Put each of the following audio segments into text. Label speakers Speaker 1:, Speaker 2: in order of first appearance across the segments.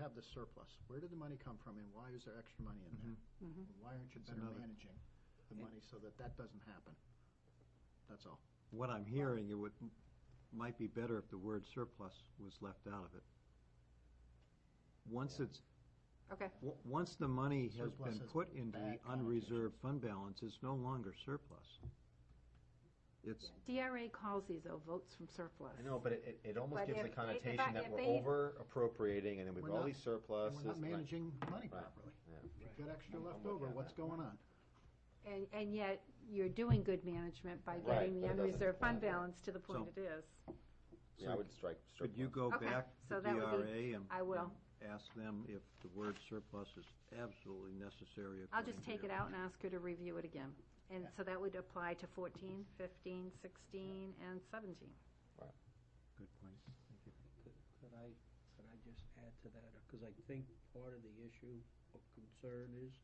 Speaker 1: have the surplus? Where did the money come from, and why is there extra money in there?
Speaker 2: Mm-hmm.
Speaker 1: And Why aren't you better
Speaker 3: another-
Speaker 1: managing the money so that that doesn't happen? That's all.
Speaker 3: What I'm hearing, it would, might be better if the word surplus was left out of it. Once it's,
Speaker 4: Okay,
Speaker 3: w- once the money has
Speaker 1: Surplus
Speaker 3: been
Speaker 1: has
Speaker 3: put into the
Speaker 1: bad
Speaker 3: unreserved fund balance, it's no longer surplus. It's,
Speaker 4: DRA calls these, oh, votes from surplus.
Speaker 2: I know, but it, it- it almost
Speaker 4: But
Speaker 2: gives the
Speaker 4: if- if I-
Speaker 2: connotation that
Speaker 4: if
Speaker 2: we're
Speaker 4: they-
Speaker 2: over appropriating and then we've
Speaker 1: We're
Speaker 2: got all
Speaker 1: not-
Speaker 2: these
Speaker 1: And
Speaker 2: surpluses.
Speaker 1: we're not
Speaker 2: Right.
Speaker 1: managing money
Speaker 2: Right.
Speaker 1: properly.
Speaker 2: Yeah.
Speaker 1: You've got extra
Speaker 2: I'm- I'm
Speaker 1: left
Speaker 2: with you
Speaker 1: over,
Speaker 2: on
Speaker 1: what's
Speaker 2: that.
Speaker 1: going on?
Speaker 4: And, and yet, you're doing good management by
Speaker 2: Right,
Speaker 4: getting
Speaker 2: but
Speaker 4: the
Speaker 2: it doesn't-
Speaker 4: unreserved fund
Speaker 2: yeah.
Speaker 4: balance to the point
Speaker 3: So-
Speaker 4: it is.
Speaker 2: Yeah, I would strike
Speaker 3: could you
Speaker 2: surplus.
Speaker 3: go
Speaker 4: Okay,
Speaker 3: back
Speaker 4: so
Speaker 3: to
Speaker 4: that would be-
Speaker 3: DRA and?
Speaker 4: I will.
Speaker 3: and Ask them if the word surplus is absolutely necessary.
Speaker 4: I'll
Speaker 3: according
Speaker 4: just
Speaker 3: to
Speaker 4: take it
Speaker 3: you.
Speaker 4: out and ask her to review it again. And so that would apply to 14, 15, 16, and 17.
Speaker 3: Good point. Thank you.
Speaker 5: Could could I, could I just add to that? Because I think part of the issue of concern is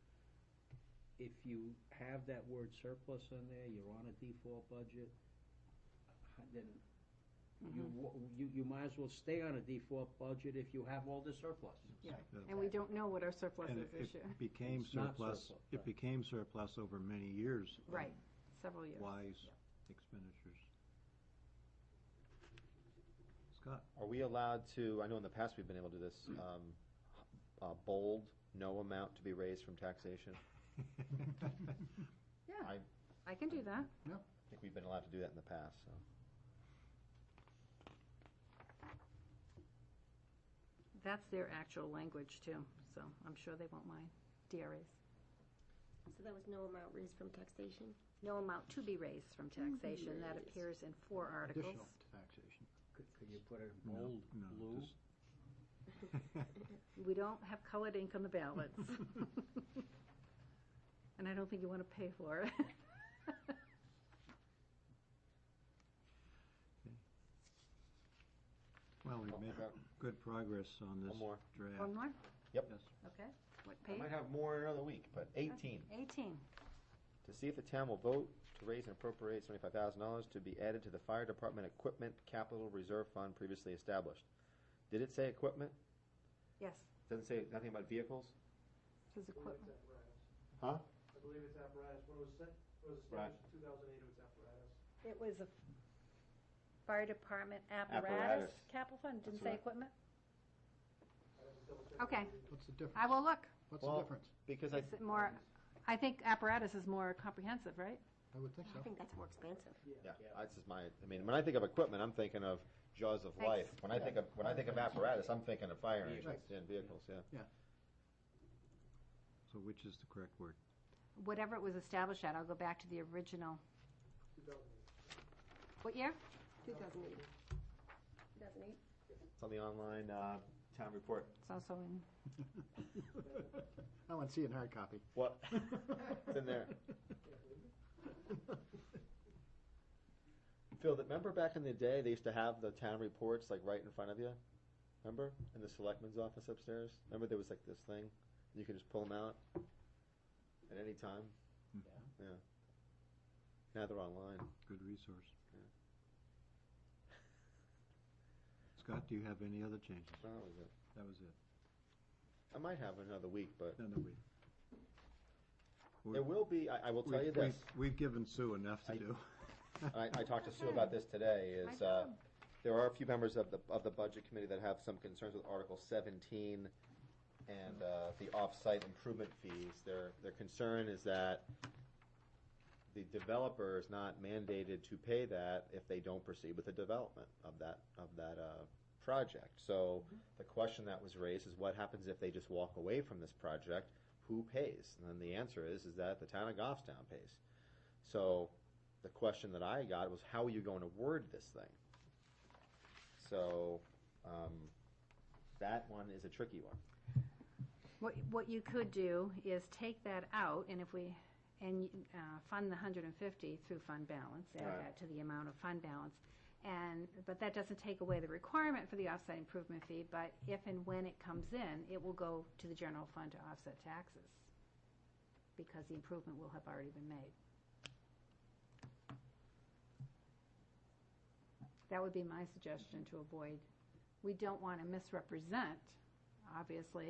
Speaker 5: if you have that word surplus in there, you're on a default budget, uh, then
Speaker 2: Mm-hmm.
Speaker 5: you,
Speaker 4: Mm-hmm.
Speaker 5: wa- you, you might as well stay on a default budget if you have all the surplus.
Speaker 4: Yeah.
Speaker 3: Yeah.
Speaker 4: And we don't know what our surplus
Speaker 3: And
Speaker 4: is
Speaker 3: it-
Speaker 4: this year.
Speaker 3: it became
Speaker 5: It's not
Speaker 3: surplus,
Speaker 5: surplus,
Speaker 3: it
Speaker 5: right.
Speaker 3: became surplus over many years. of
Speaker 4: Right, several years.
Speaker 3: Wise expenditures. Scott?
Speaker 2: Are we allowed to, I know in the past we've been able to do this, um, uh, bold, no amount to be raised from taxation.
Speaker 4: Yeah,
Speaker 2: I-
Speaker 4: I can do that.
Speaker 2: I think we've been allowed to do that in the past, so.
Speaker 4: That's their actual language too, so I'm sure they won't mind, DRAs.
Speaker 6: So that was no amount raised from taxation?
Speaker 4: No amount to be raised from taxation, that
Speaker 6: Raised.
Speaker 4: appears in four articles.
Speaker 1: Additional taxation.
Speaker 5: Could, could you put a
Speaker 3: No,
Speaker 5: bold
Speaker 3: no,
Speaker 5: blue?
Speaker 3: just-
Speaker 4: We don't have colored ink on the ballots. And I don't think you want to pay for it.
Speaker 3: Well, we've
Speaker 2: Oh,
Speaker 3: made
Speaker 2: I got
Speaker 3: good progress on this
Speaker 2: One more.
Speaker 3: draft.
Speaker 4: One more?
Speaker 2: Yep.
Speaker 3: Yes.
Speaker 4: Okay, what
Speaker 2: I
Speaker 4: page?
Speaker 2: might have more in another week, but eighteen.
Speaker 4: Eighteen.
Speaker 2: To see if the town will vote to raise and appropriate seventy-five thousand dollars to be added to the fire department equipment capital reserve fund previously established. Did it say equipment?
Speaker 4: Yes,
Speaker 2: Doesn't say nothing about vehicles?
Speaker 4: this is equipment.
Speaker 2: Huh?
Speaker 7: I believe it's apparatus. When it was set, it was
Speaker 2: Right.
Speaker 7: established in 2008, it was apparatus.
Speaker 4: It was a fire department apparatus
Speaker 2: Apparatus.
Speaker 4: capital fund, didn't
Speaker 2: That's
Speaker 4: say
Speaker 2: right.
Speaker 4: equipment?
Speaker 7: I have to double check.
Speaker 4: Okay,
Speaker 1: What's the difference?
Speaker 4: I will look.
Speaker 1: What's the
Speaker 2: Well-
Speaker 1: difference?
Speaker 2: Because I,
Speaker 4: Is it more, I think apparatus is more comprehensive, right?
Speaker 1: I would think
Speaker 6: I
Speaker 1: so.
Speaker 6: think that's more expensive.
Speaker 2: yeah, that's just my, I mean, when I think of equipment, I'm thinking of jaws of
Speaker 4: Thanks.
Speaker 2: life. When I think of, when I think of apparatus, I'm thinking of fire engines
Speaker 1: Vehicles.
Speaker 2: and vehicles, yeah.
Speaker 3: So which is the correct word?
Speaker 4: Whatever it was established at, I'll go back to the original.
Speaker 7: 2008.
Speaker 4: What year?
Speaker 6: 2008. 2008?
Speaker 2: It's on the online, uh, town report.
Speaker 4: It's also in,
Speaker 1: I want to see it in hard copy.
Speaker 2: What? It's in there. Phil, that- remember back in the day, they used to have the town reports like right in front of you? Remember? In the selectman's office upstairs? Remember there was like this thing? You could just pull them out at any time? Yeah. Now they're online.
Speaker 3: Good resource. Scott, do you have any other changes?
Speaker 2: Oh, that was it.
Speaker 3: That was it.
Speaker 2: I might have another week, but
Speaker 3: No, no, we.
Speaker 2: there will be, I, I will tell you
Speaker 3: we've-
Speaker 2: this.
Speaker 3: we've- We've given Sue enough to
Speaker 2: I-
Speaker 3: do.
Speaker 2: I, I talked to Sue about this today,
Speaker 4: My
Speaker 2: is, uh,
Speaker 4: job.
Speaker 2: there are a few members of the, of the budget committee that have some concerns with Article seventeen and, uh, the off-site improvement fees. Their, their concern is that the developer is not mandated to pay that if they don't proceed with the development of that, of that, uh, project. So the question that was raised is what happens if they just walk away from this project? Who pays? And then the answer is, is that the town of Goffstown pays. So the question that I got was, how are you going to word this thing? So um, that one is a tricky one.
Speaker 4: what, what you could do is take that out, and if we, and uh, fund the 150 through fund balance, add
Speaker 2: Right.
Speaker 4: that to the amount of fund balance. And, but that doesn't take away the requirement for the offset improvement fee, but if and when it comes in, it will go to the general fund to offset taxes, because the improvement will have already been made. That would be my suggestion to avoid, we don't want to misrepresent obviously.